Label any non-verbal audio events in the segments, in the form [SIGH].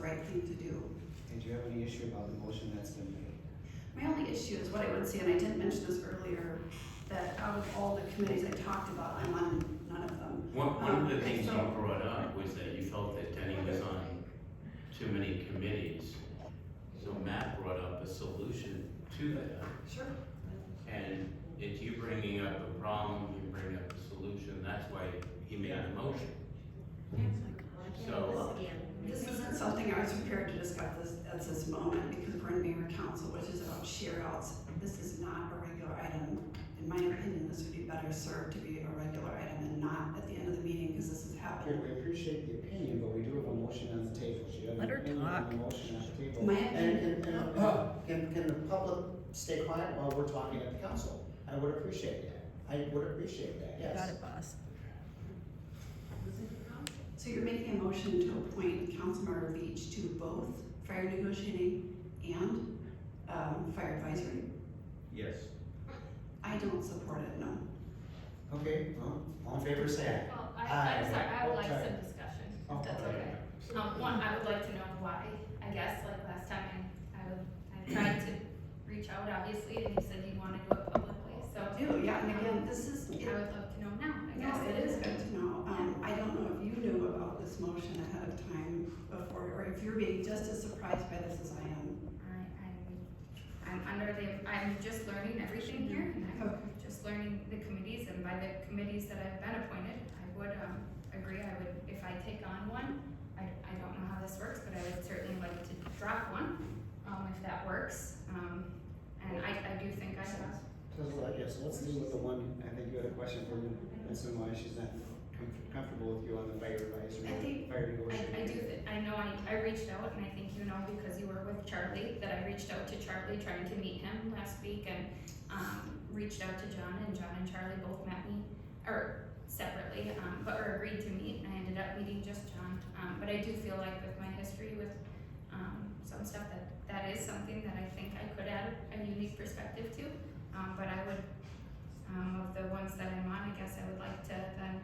right thing to do. And do you have any issue about the motion that's been made? My only issue is what I would say, and I did mention this earlier, that out of all the committees I talked about, I'm on none of them. One, one of the things you Um, so- brought up was that you felt that Denny was on too many committees. So Matt brought up a solution to that, Sure. and it's you bringing up a problem, you bring up a solution, that's why he made a motion. So, This isn't something I was prepared to discuss this, at this moment, because we're in mayor council, which is about share outs. This is not a regular item. In my opinion, this would be better served to be a regular item and not at the end of the meeting, because this has happened. We appreciate the opinion, but we do have a motion on the table. Do you have Let an her opinion on talk. the motion on the table? My And, opinion, and, and, uh, can, can the public stay quiet while we're talking at the council? I would appreciate that. I would appreciate that, Got yes. it, boss. so you're making a motion to appoint Councilmember Beach to both fire negotiating and, um, fire advisory? yes. I don't support it, no. Okay, well, all in favor, say Well, I, I'm sorry, I would like Sorry. some discussion, aye. if that's okay. Um, one, I would like to know why, I guess, like last time, I, I would, I tried to reach out, obviously, and he said he wanted to do it publicly, so I do, yeah, and again, this is, I would love to know now, I No, guess. it is good to know. Um, I don't know if you knew about this motion ahead of time before, or if you're being just as surprised by this as I am. I, I'm, I'm under the, I'm just learning everything here, and I'm just learning the committees, and by the committees that I've been appointed, I would, um, agree, I would, if I take on one, I, I don't know how this works, but I would certainly like to drop one, um, if that works, um, and I, I do think I have, uh, Yes, let's deal with the one, I think you had a question for me, that's why she's not com- comfortable with you on the fire I advisory, think- fire I, I do, negotiating. th- I know I, I reached out, and I think you know, because you were with Charlie, that I reached out to Charlie, trying to meet him last week, and, um, reached out to John, and John and Charlie both met me, or separately, um, but were agreed to meet, and I ended up meeting just John, um, but I do feel like with my history with, um, some stuff, that, that is something that I think I could add a unique perspective to, um, but I would, um, of the ones that I'm on, I guess I would like to then,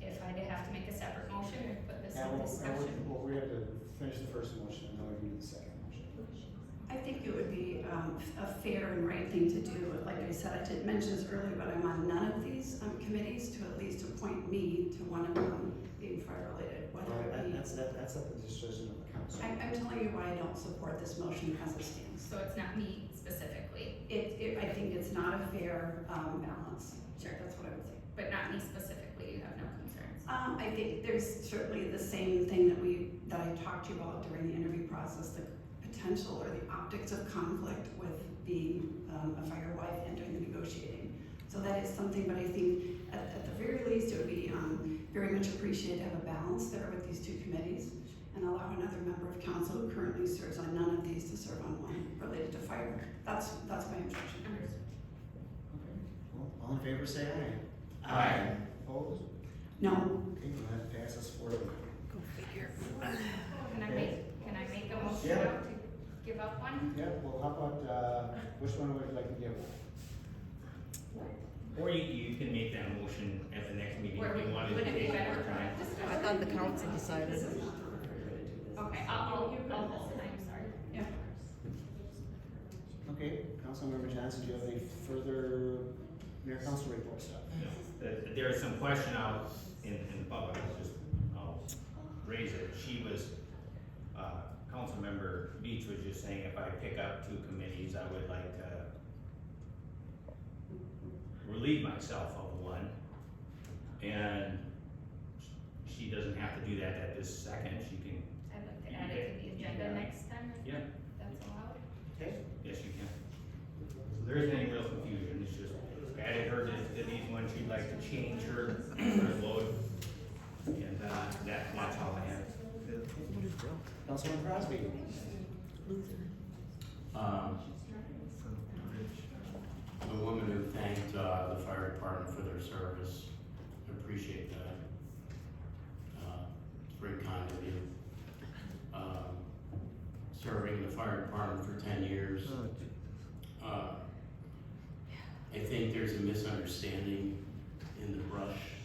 if I did have to make a separate motion, or put this Yeah, in well, discussion. well, we have to finish the first motion, and then we can do the second motion. I think it would be, um, a fair and right thing to do. Like I said, I did mention this earlier, but I'm on none of these, um, committees to at least appoint me to one of them being fire related, whether Well, it that- be. that's, that- that's at the discretion of the council. I'm, I'm telling you why I don't support this motion as it stands. So it's not me specifically, It, it, I think it's not a fair, um, balance. Sure. That's what I would say. but not me specifically, you have no [LAUGHS] concerns. Um, I think there's certainly the same thing that we, that I talked to you about during the interview process, the potential or the optics of conflict with being, um, a fire wife and doing the negotiating. So that is something, but I think at, at the very least, it would be, um, very much appreciated to have a balance there with these two committees and allow another member of council who currently serves on none of these to serve on one related to fire. That's, that's my objection. Understood. Okay, well, all in favor, say aye. Aye. Opposed? No, Okay, well, that passes four to one. Go figure. Can I make, can I make a motion Yeah. now to give up one? Yeah, well, how about, uh, which one would you like to give? Or you, you can make that motion at the next meeting Or if you would wanted would to it be take better more for time. a I discussion? thought the council decided. Okay, I'll, I'll, I'll listen, I'm sorry. Yeah. Okay, Councilmember Johnson, do you have any further mayor council report stuff? Uh, There is some question out in, in the public, I'll just, I'll raise it. She was, uh, Councilmember Beach was just saying if I pick up two committees, I would like to relieve myself of one. And she doesn't have to do that at this second, she can, I'd like to add it to the agenda next time, if yeah, that's allowed. Okay, Yes, you can. So there isn't any real confusion, it's just added her to, to these ones, she'd like to change her, her load. And, uh, that, that's all I have. Councilman Crosby? Um, the woman who thanked, uh, the fire department for their service, I appreciate that. Uh, It's very kind of you. Um, Serving the fire department for ten years. Uh, I think there's a misunderstanding in the brush Uh,